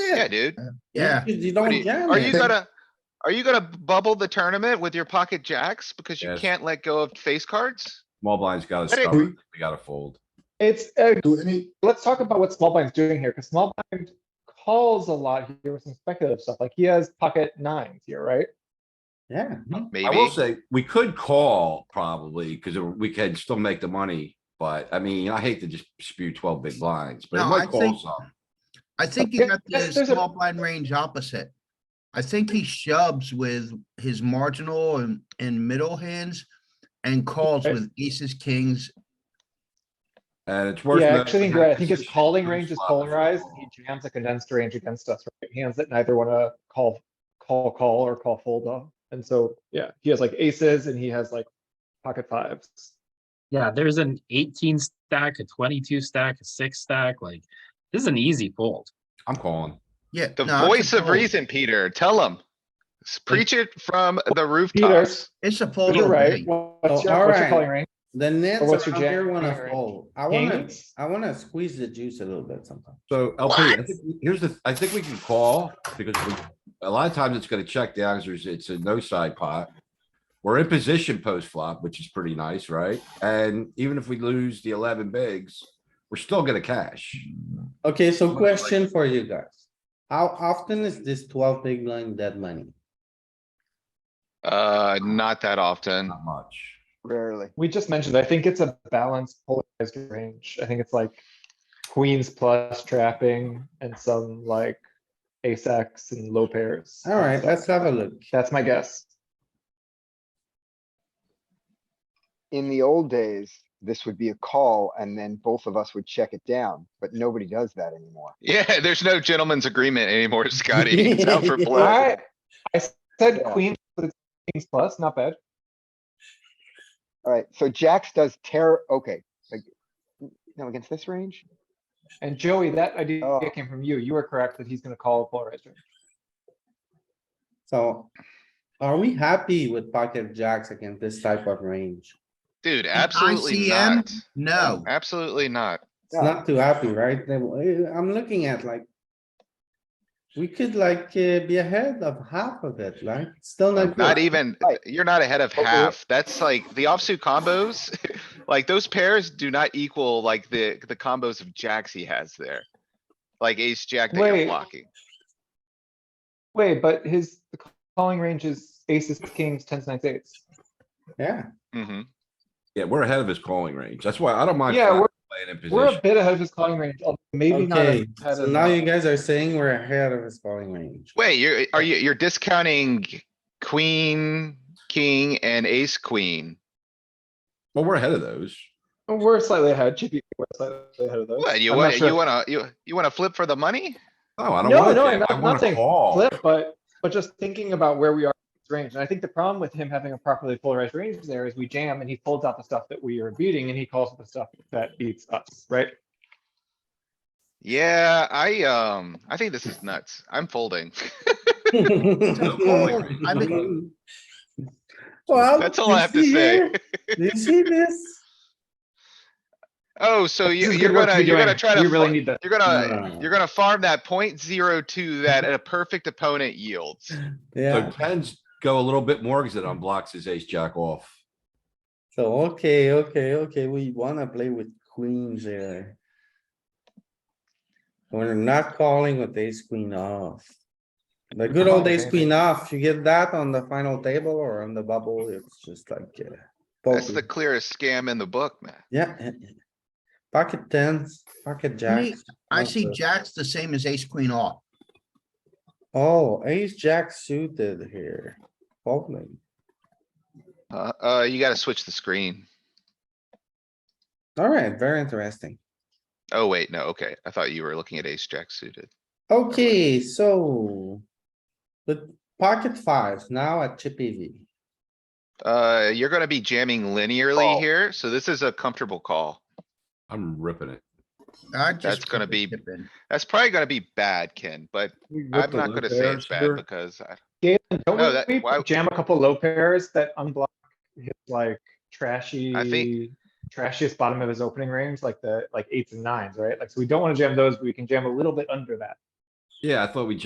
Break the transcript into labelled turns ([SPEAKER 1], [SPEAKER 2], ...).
[SPEAKER 1] Yeah,
[SPEAKER 2] it.
[SPEAKER 1] dude.
[SPEAKER 2] Yeah,
[SPEAKER 3] You you
[SPEAKER 1] What
[SPEAKER 3] don't
[SPEAKER 1] do you-
[SPEAKER 3] jam
[SPEAKER 1] Are you
[SPEAKER 3] it.
[SPEAKER 1] gonna, are you gonna bubble the tournament with your pocket jacks because you
[SPEAKER 4] Yes.
[SPEAKER 1] can't let go of face cards?
[SPEAKER 4] Small blind's gotta
[SPEAKER 1] Let it-
[SPEAKER 4] stop. We gotta fold.
[SPEAKER 5] It's, uh,
[SPEAKER 2] do any,
[SPEAKER 5] let's talk about what small blind's doing here, because small blind calls a lot here with some speculative stuff, like he has pocket nines here, right?
[SPEAKER 3] Yeah,
[SPEAKER 4] I will
[SPEAKER 1] Maybe.
[SPEAKER 4] say, we could call probably, cuz we can still make the money, but I mean, I hate to just spew twelve big blinds, but it
[SPEAKER 2] No,
[SPEAKER 4] might
[SPEAKER 2] I
[SPEAKER 4] call
[SPEAKER 2] think-
[SPEAKER 4] some.
[SPEAKER 2] I think you
[SPEAKER 5] Yeah,
[SPEAKER 2] got the
[SPEAKER 5] there's- there's a-
[SPEAKER 2] small blind range opposite. I think he shoves with his marginal and, and middle hands and calls
[SPEAKER 5] Okay.
[SPEAKER 2] with aces, kings.
[SPEAKER 4] And it's worth.
[SPEAKER 5] Yeah, I
[SPEAKER 4] noting
[SPEAKER 5] actually, think
[SPEAKER 4] that
[SPEAKER 5] you're right. I think
[SPEAKER 4] this
[SPEAKER 5] his calling
[SPEAKER 4] huge
[SPEAKER 5] range is
[SPEAKER 4] flop
[SPEAKER 5] polarized,
[SPEAKER 4] overall.
[SPEAKER 5] and he jams a condensed range against us, right? Hands that neither wanna call, call, call, or call fold off, and so, yeah, he has like aces and he has like pocket fives.
[SPEAKER 6] Yeah, there's an 18 stack, a 22 stack, a 6 stack. Like, this is an easy fold.
[SPEAKER 4] I'm calling.
[SPEAKER 2] Yeah.
[SPEAKER 1] The
[SPEAKER 2] no, it's a
[SPEAKER 1] voice of
[SPEAKER 2] fold.
[SPEAKER 1] reason, Peter, tell them. Preach it from the
[SPEAKER 5] Peter,
[SPEAKER 1] rooftops.
[SPEAKER 2] It's a fold.
[SPEAKER 5] you're
[SPEAKER 2] over
[SPEAKER 5] right.
[SPEAKER 2] range.
[SPEAKER 5] What's your, what's your
[SPEAKER 3] alright.
[SPEAKER 5] calling range?
[SPEAKER 3] the nets
[SPEAKER 5] what's your
[SPEAKER 3] around
[SPEAKER 5] jam-
[SPEAKER 3] here
[SPEAKER 5] jam
[SPEAKER 3] wanna
[SPEAKER 5] range?
[SPEAKER 3] fold. I wanna,
[SPEAKER 5] Kings?
[SPEAKER 3] I wanna squeeze the juice a little bit sometimes.
[SPEAKER 4] So LP, I think we- here's the, th- I think we can call because we- a lot of times it's gonna check down, 'cause there's, it's a no side pot. We're in position post flop, which is pretty nice, right? And even if we lose the eleven bigs, we're still gonna cash.
[SPEAKER 3] Okay, so question for you guys. How often is this twelve big blind dead money?
[SPEAKER 1] Uh, not that often.
[SPEAKER 4] Not much.
[SPEAKER 2] Rarely.
[SPEAKER 5] We just mentioned, I think it's a balanced polarized range. I think it's like queens plus trapping and some like ace x and low pairs.
[SPEAKER 3] Alright, let's have a look.
[SPEAKER 5] That's my guess.
[SPEAKER 7] in the old days, this would be a call and then both of us would check it down, but nobody does that anymore.
[SPEAKER 1] Yeah, there's no gentleman's agreement anymore, Scotty. It's out for blood.
[SPEAKER 5] I, I said
[SPEAKER 7] Yeah.
[SPEAKER 5] queens, but it's kings plus, not bad.
[SPEAKER 7] Alright, so Jax does terror, okay, like, no, against this range?
[SPEAKER 5] And Joey, that idea
[SPEAKER 7] Oh.
[SPEAKER 5] came from you. You were correct that he's gonna call a polarized range.
[SPEAKER 3] So are we happy with pocket jacks against this type of range?
[SPEAKER 1] Dude, absolutely
[SPEAKER 2] ICM?
[SPEAKER 1] not.
[SPEAKER 2] No,
[SPEAKER 1] Absolutely not.
[SPEAKER 3] It's not too happy, right? Then, eh, I'm looking at like. We could like eh, be ahead of half of it, like still not.
[SPEAKER 1] Not
[SPEAKER 3] good.
[SPEAKER 1] even,
[SPEAKER 7] Right.
[SPEAKER 1] you're not ahead of
[SPEAKER 7] But we're-
[SPEAKER 1] half. That's like the offsuit combos. Like those pairs do not equal like the, the combos of jacks he has there. Like ace, jack that
[SPEAKER 5] Wait.
[SPEAKER 1] you're blocking.
[SPEAKER 5] Wait, but his the calling range is aces, kings, tens, nines, eights.
[SPEAKER 3] Yeah,
[SPEAKER 1] Mhm.
[SPEAKER 4] Yeah, we're ahead of his calling range. That's why I don't mind.
[SPEAKER 5] Yeah,
[SPEAKER 4] flat
[SPEAKER 5] we're-
[SPEAKER 4] Playing in
[SPEAKER 5] We're a
[SPEAKER 4] position.
[SPEAKER 5] bit ahead of his calling range, although maybe not. as
[SPEAKER 3] okay,
[SPEAKER 5] ahead
[SPEAKER 3] so
[SPEAKER 5] as-
[SPEAKER 3] now you guys are saying we're ahead of his falling range.
[SPEAKER 1] Wait, you're, are you, you're discounting queen, king and ace, queen.
[SPEAKER 4] Well, we're ahead of those.
[SPEAKER 5] We're slightly ahead, Chippy, we're slightly ahead of those.
[SPEAKER 1] What, you
[SPEAKER 5] I'm not
[SPEAKER 1] want,
[SPEAKER 5] sure.
[SPEAKER 1] you wanna, you, you wanna flip for the money?
[SPEAKER 4] Oh, I don't
[SPEAKER 5] No,
[SPEAKER 4] want
[SPEAKER 5] no, I'm
[SPEAKER 4] to.
[SPEAKER 5] not-
[SPEAKER 4] I
[SPEAKER 5] I'm not
[SPEAKER 4] want to
[SPEAKER 5] saying
[SPEAKER 4] call.
[SPEAKER 5] flip, but, but just thinking about where we are in his range, and I think the problem with him having a properly polarized range there is we jam and he folds out the stuff that we are beating and he calls the stuff that beats us, right?
[SPEAKER 1] Yeah, I, um, I think this is nuts. I'm folding.
[SPEAKER 4] No calling range.
[SPEAKER 2] I mean,
[SPEAKER 3] Well,
[SPEAKER 1] That's all
[SPEAKER 3] you
[SPEAKER 1] I have to
[SPEAKER 3] see
[SPEAKER 1] say.
[SPEAKER 3] here? Do you see this?
[SPEAKER 1] Oh, so
[SPEAKER 5] This
[SPEAKER 1] you,
[SPEAKER 5] is
[SPEAKER 1] you're
[SPEAKER 5] good work
[SPEAKER 1] gonna,
[SPEAKER 5] be
[SPEAKER 1] you're gonna
[SPEAKER 5] doing.
[SPEAKER 1] try to.
[SPEAKER 5] We really
[SPEAKER 1] fl-
[SPEAKER 5] need this.
[SPEAKER 1] You're gonna,
[SPEAKER 3] No.
[SPEAKER 1] you're gonna farm that point zero two that a perfect opponent yields.
[SPEAKER 4] So
[SPEAKER 3] Yeah,
[SPEAKER 4] tens go a little bit more because it unblocks his ace jack off.
[SPEAKER 3] so, okay, okay, okay, we wanna play with queens there. We're not calling with ace queen off. The good old
[SPEAKER 5] Oh,
[SPEAKER 3] ace
[SPEAKER 5] okay.
[SPEAKER 3] queen off, you get that on the final table or on the bubble, it's just like, uh,
[SPEAKER 1] That's the
[SPEAKER 3] poker.
[SPEAKER 1] clearest scam in the book, man.
[SPEAKER 3] yeah. yeah, yeah. Pocket tens, pocket
[SPEAKER 2] me,
[SPEAKER 3] jacks.
[SPEAKER 2] I
[SPEAKER 3] not
[SPEAKER 2] see
[SPEAKER 3] the-
[SPEAKER 2] jacks the same as ace, queen off.
[SPEAKER 3] Oh, ace jack suited here, folding.
[SPEAKER 1] Uh, uh, you gotta switch the screen.
[SPEAKER 3] Alright, very interesting.
[SPEAKER 1] Oh, wait, no, okay. I thought you were looking at ace jack suited.
[SPEAKER 3] Okay, so. The pocket fives now at Chippy V.
[SPEAKER 1] Uh, you're gonna be jamming linearly
[SPEAKER 7] Call.
[SPEAKER 1] here, so this is a comfortable call.
[SPEAKER 4] I'm ripping it.
[SPEAKER 2] I just.
[SPEAKER 1] That's gonna
[SPEAKER 2] keep
[SPEAKER 1] be-
[SPEAKER 2] it dipping.
[SPEAKER 1] That's probably gonna be bad, Ken, but I'm
[SPEAKER 4] the
[SPEAKER 1] not
[SPEAKER 4] low
[SPEAKER 1] gonna say it's
[SPEAKER 4] pairs here?
[SPEAKER 1] bad because I,
[SPEAKER 5] Galen,
[SPEAKER 1] No,
[SPEAKER 5] don't
[SPEAKER 1] that-
[SPEAKER 5] we
[SPEAKER 1] why-
[SPEAKER 5] jam a couple low pairs that unblock his like trashy? Trashiest bottom of his opening range, like the, like eights and nines, right? Like, so we don't wanna jam those, but we can jam a little bit under that.
[SPEAKER 4] Yeah, I thought we